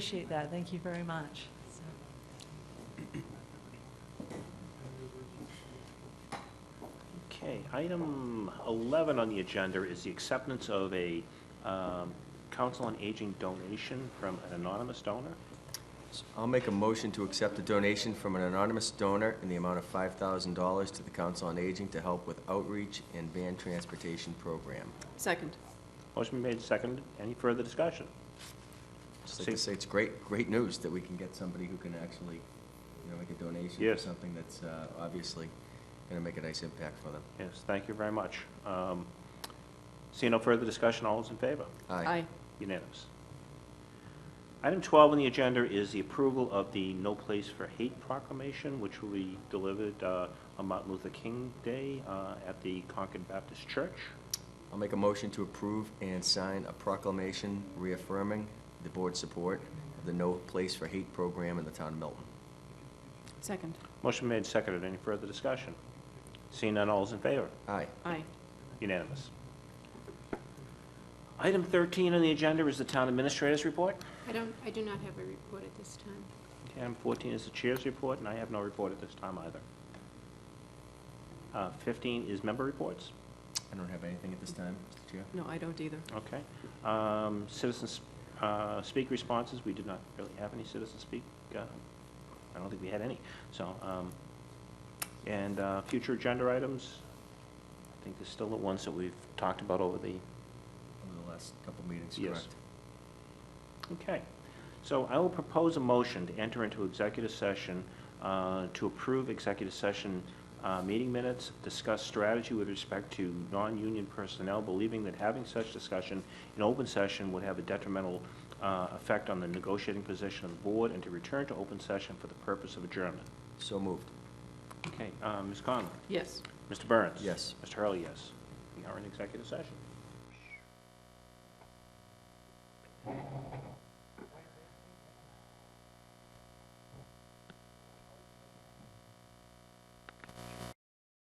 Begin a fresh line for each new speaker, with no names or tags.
Appreciate that, thank you very much. So,
Okay, item 11 on the agenda is the acceptance of a um, Council on Aging donation from an anonymous donor.
I'll make a motion to accept a donation from an anonymous donor in the amount of $5,000 to the Council on Aging to help with outreach and van transportation program.
Second.
Motion made, second. Any further discussion?
Just like to say, it's great, great news that we can get somebody who can actually, you know, make a donation for
Yes.
something that's uh, obviously going to make a nice impact for them.
Yes, thank you very much. Um, Seeing no further discussion, all those in favor?
Aye.
Unanimous. Item 12 on the agenda is the approval of the No Place for Hate proclamation, which will be delivered uh, on Martin Luther King Day uh, at the Concord Baptist Church.
I'll make a motion to approve and sign a proclamation reaffirming the board's support of the No Place for Hate program in the town of Milton.
Second.
Motion made, seconded. Any further discussion? Seeing none, all is in favor?
Aye.
Aye.
Unanimous. Item 13 on the agenda is the Town Administrator's Report.
I don't, I do not have a report at this time.
Item 14 is the Chair's Report, and I have no report at this time either. Uh, 15 is Member Reports.
I don't have anything at this time, Mr. Chair.
No, I don't either.
Okay. Um, Citizens uh, speak responses, we did not really have any citizen speak. uh, I don't think we had any, so. um, And uh, future agenda items, I think there's still the ones that we've talked about over the
Over the last couple meetings,
Yes.
correct?
Okay. So I will propose a motion to enter into executive session uh, to approve executive session uh, meeting minutes, discuss strategy with respect to non-union personnel, believing that having such discussion in open session would have a detrimental uh, effect on the negotiating position of the board, and to return to open session for the purpose of adjournment.
So moved.
Okay, uh, Ms. Conlon?
Yes.
Mr. Burns?
Yes.
Mr. Hurley, yes. We are in executive session.